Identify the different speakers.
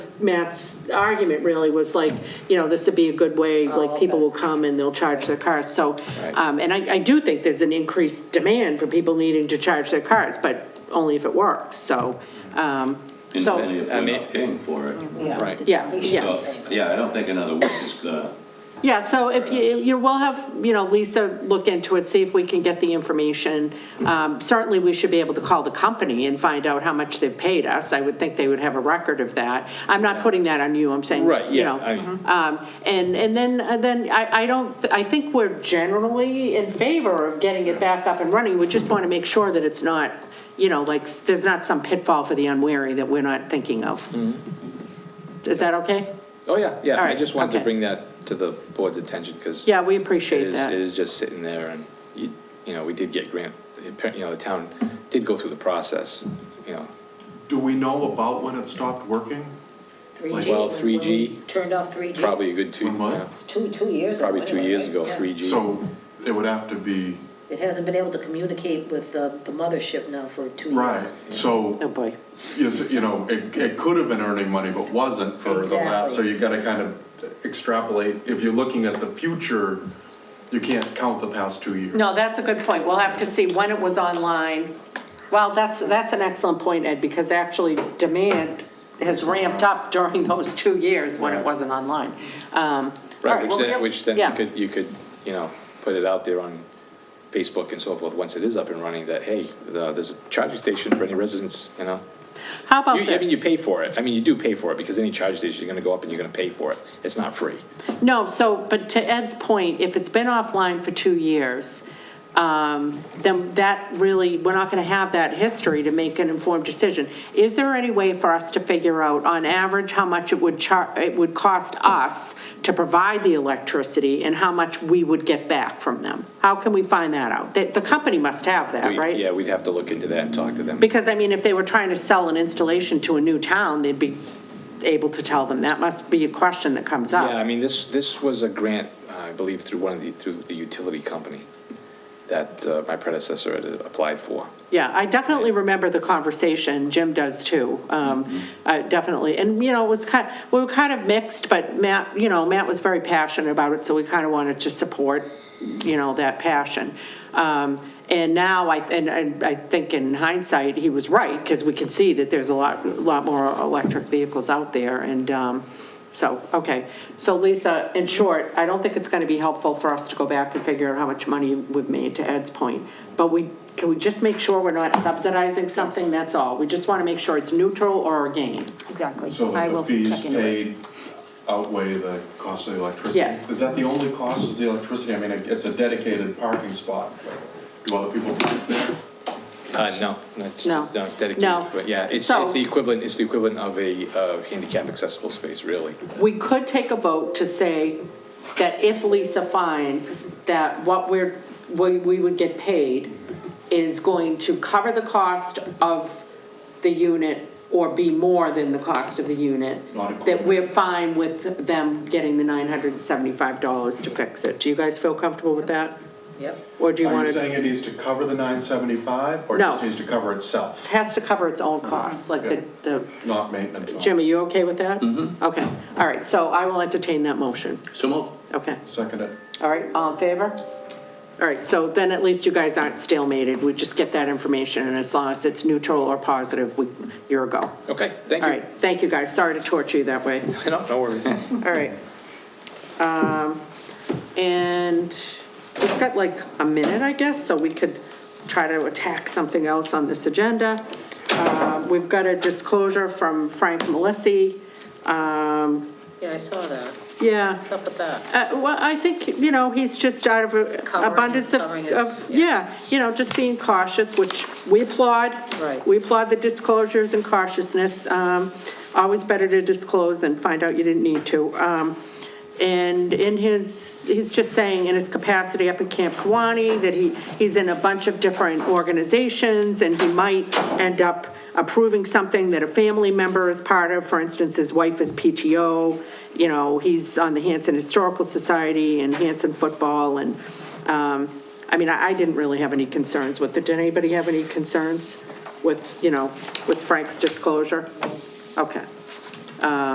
Speaker 1: Matt's argument really was like, you know, this would be a good way, like, people will come and they'll charge their cars, so, um, and I, I do think there's an increased demand for people needing to charge their cars, but only if it works, so, um,
Speaker 2: And then
Speaker 1: so,
Speaker 2: if we're not paying for it.
Speaker 3: Right.
Speaker 1: yeah, yeah.
Speaker 2: So, Yeah, I don't think another week is uh, gonna,
Speaker 1: Yeah, so if you, you will have, you know, Lisa look into it, see if we can get the information. Um, Certainly, we should be able to call the company and find out how much they've paid us. I would think they would have a record of that. I'm not putting that on you, I'm saying,
Speaker 3: Right,
Speaker 1: you
Speaker 3: yeah,
Speaker 1: know.
Speaker 3: I-
Speaker 1: Um, And, and then, and then I, I don't, I think we're generally in favor of getting it back up and running. We just want to make sure that it's not, you know, like, s- there's not some pitfall for the unwary that we're not thinking of.
Speaker 3: Mm-hmm.
Speaker 1: Is that okay?
Speaker 3: Oh, yeah, yeah,
Speaker 1: All
Speaker 3: I
Speaker 1: right,
Speaker 3: just wanted to
Speaker 1: okay.
Speaker 3: bring that to the board's attention, because
Speaker 1: Yeah, we
Speaker 3: it
Speaker 1: appreciate
Speaker 3: is,
Speaker 1: that.
Speaker 3: it is just sitting there, and, you you know, we did get grant, you know, the town did go through the process, you know,
Speaker 4: Do we know about when it stopped working?
Speaker 5: 3G.
Speaker 3: Well,
Speaker 5: when- when
Speaker 3: 3G,
Speaker 5: we Turned off 3G.
Speaker 3: probably a good two,
Speaker 4: One month?
Speaker 3: you know,
Speaker 5: It's two, two years. ago
Speaker 3: probably two
Speaker 5: anyway,
Speaker 3: years
Speaker 5: right?
Speaker 3: ago,
Speaker 5: Yeah.
Speaker 3: 3G.
Speaker 4: So it would have to be,
Speaker 5: It hasn't been able to communicate with uh, the mothership now for two years.
Speaker 4: right,
Speaker 1: Oh,
Speaker 4: so,
Speaker 1: boy.
Speaker 4: is, it- you know, it, it could have been earning money, but wasn't for the last, so
Speaker 5: Exactly.
Speaker 4: you gotta kind of extrapolate. If you're looking at the future, you can't count the past two years.
Speaker 1: No, that's a good point. We'll have to see when it was online. Well, that's, that's an excellent point, Ed, because actually demand has ramped up during those two years when it wasn't online. Um, all
Speaker 3: Right, which
Speaker 1: well, we
Speaker 3: then,
Speaker 1: have-
Speaker 3: which then
Speaker 1: yeah.
Speaker 3: you could, you could, you know, put it out there on Facebook and so forth, once it is up and running, that, hey, the- there's a charging station for any residents, you know?
Speaker 1: How about
Speaker 3: You- I mean, you
Speaker 1: this?
Speaker 3: pay for it, I mean, you do pay for it, because any charge station, you're gonna go up and you're gonna pay for it, it's not free.
Speaker 1: No, so, but to Ed's point, if it's been offline for two years, um, then that really, we're not gonna have that history to make an informed decision. Is there any way for us to figure out, on average, how much it would char, it would cost us to provide the electricity and how much we would get back from them? How can we find that out? The, the company must have that,
Speaker 3: We-
Speaker 1: right?
Speaker 3: Yeah, we'd have to look into that and talk to them.
Speaker 1: Because, I mean, if they were trying to sell an installation to a new town, they'd be able to tell them. That must be a question that comes up.
Speaker 3: Yeah, I mean, this, this was a grant, uh, I believe, through one of the, through the utility company that uh, my predecessor had applied for.
Speaker 1: Yeah, I definitely remember the conversation, Jim does too, um, uh, definitely. And, you know, it was kind, we were kind of mixed, but Matt, you know, Matt was very passionate about it, so we kind of wanted to support, you know, that passion. Um, And now, I, and- and I think in hindsight, he was right, because we can see that there's a lot, lot more electric vehicles out there, and um, so, okay. So Lisa, in short, I don't think it's going to be helpful for us to go back and figure out how much money we've made, to Ed's point, but we, can we just make sure we're not subsidizing something? That's all. We just want to make sure it's neutral or gain.
Speaker 5: Exactly.
Speaker 4: So
Speaker 5: I
Speaker 4: that the
Speaker 5: will
Speaker 4: fees
Speaker 5: check into it.
Speaker 4: paid outweigh the cost of the electricity?
Speaker 1: Yes.
Speaker 4: Is that the only cost is the electricity? I mean, it- it's a dedicated parking spot. Do other people park there?
Speaker 3: Uh, no, no, it's,
Speaker 1: No.
Speaker 3: no, it's dedicated,
Speaker 1: No.
Speaker 3: but yeah, it's,
Speaker 1: So-
Speaker 3: it's the equivalent, it's the equivalent of a, uh, handicap accessible space, really.
Speaker 1: We could take a vote to say that if Lisa finds that what we're, we, we would get paid is going to cover the cost of the unit or be more than the cost of the unit,
Speaker 4: Not included.
Speaker 1: that we're fine with them getting the nine hundred and seventy-five dollars to fix it. Do you guys feel comfortable with that?
Speaker 5: Yep.
Speaker 1: Or do you
Speaker 4: Are
Speaker 1: want
Speaker 4: you
Speaker 1: to,
Speaker 4: saying it needs to cover the nine seventy-five or it
Speaker 1: No.
Speaker 4: just needs to cover itself?
Speaker 1: has to cover its own costs, like the, the,
Speaker 4: Not maintenance.
Speaker 1: Jim, are you okay with that? Mm-hmm. Okay, all right, so I will entertain that motion,
Speaker 2: so move.
Speaker 1: okay.
Speaker 4: Second it.
Speaker 1: All right, all in favor? All right, so then at least you guys aren't stalemated, we just get that information, and as long as it's neutral or positive, we, you're a go.
Speaker 3: Okay, thank
Speaker 1: All
Speaker 3: you.
Speaker 1: right, thank you guys, sorry to torture you that way.
Speaker 3: No, no worries.
Speaker 1: All right. Um, And we've got like a minute, I guess, so we could try to attack something else on this agenda. Uh, We've got a disclosure from Frank Malisi. Um,
Speaker 5: Yeah, I saw that.
Speaker 1: Yeah.
Speaker 5: What's up with that?
Speaker 1: Uh, Well, I think, you know, he's just out of a-
Speaker 5: Covering-
Speaker 1: abundance of,
Speaker 5: covering
Speaker 1: of,
Speaker 5: his-
Speaker 1: yeah, you know, just being cautious, which we applaud.
Speaker 5: Right.
Speaker 1: We applaud the disclosures and cautiousness. Um, Always better to disclose than find out you didn't need to. Um, And in his, he's just saying in his capacity up in Camp Kawani that he, he's in a bunch of different organizations and he might end up approving something that a family member is part of. For instance, his wife is PTO, you know, he's on the Hanson Historical Society and Hanson Football and, um, I mean, I I didn't really have any concerns with it. Did anybody have any concerns with, you know, with Frank's disclosure? Okay.